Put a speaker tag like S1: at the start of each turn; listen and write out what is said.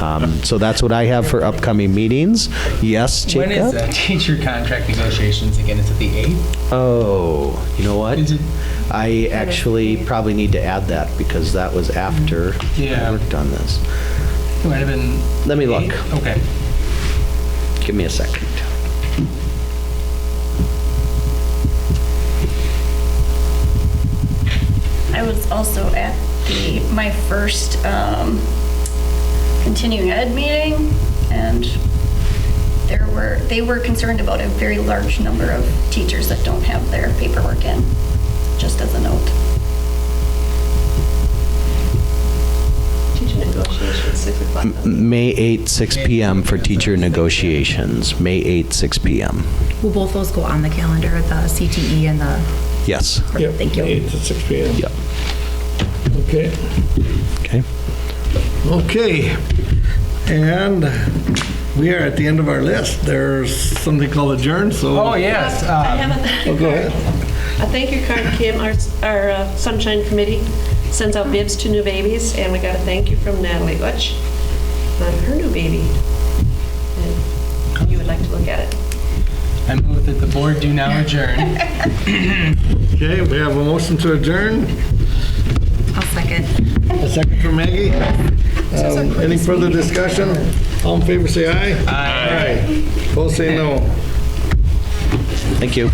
S1: Um, So that's what I have for upcoming meetings. Yes,
S2: When is
S1: Jacob?
S2: the teacher contract negotiations again? Is it the eighth?
S1: Oh, you know what?
S2: Is it-
S1: I actually probably need to add that because that was after I
S2: Yeah.
S1: worked on this.
S2: It might have been.
S1: Let me look.
S2: eighth? Okay.
S1: Give me a second.
S3: I was also at the, my first um, continuing ed meeting, and there were, they were concerned about a very large number of teachers that don't have their paperwork in, just as a note.
S4: Teacher negotiations, six o'clock.
S1: May 8, 6 PM for teacher negotiations. May 8, 6 PM.
S5: Will both those go on the calendar, the CTE and the,
S1: Yes.
S6: Yep,
S5: thank you.
S6: 8 to 6 p.m.
S1: Yep.
S6: Okay.
S1: Okay.
S6: Okay. And we are at the end of our list. There's something called adjourn, so.
S2: Oh, yes.
S4: I
S2: uh,
S4: have a
S6: Oh,
S4: thank
S6: go
S4: you
S6: ahead.
S4: card. A thank you card, Kim, our, our uh, Sunshine Committee sends out bibs to new babies, and we got a thank you from Natalie Butch on her new baby. And You would like to look at it.
S2: I move that the board do now adjourn.
S6: Okay, we have a motion to adjourn,
S5: I'll second.
S6: a second for Maggie. Um, Any further discussion? All in favor, say aye. Aye. Aye. Both say no.
S1: Thank you.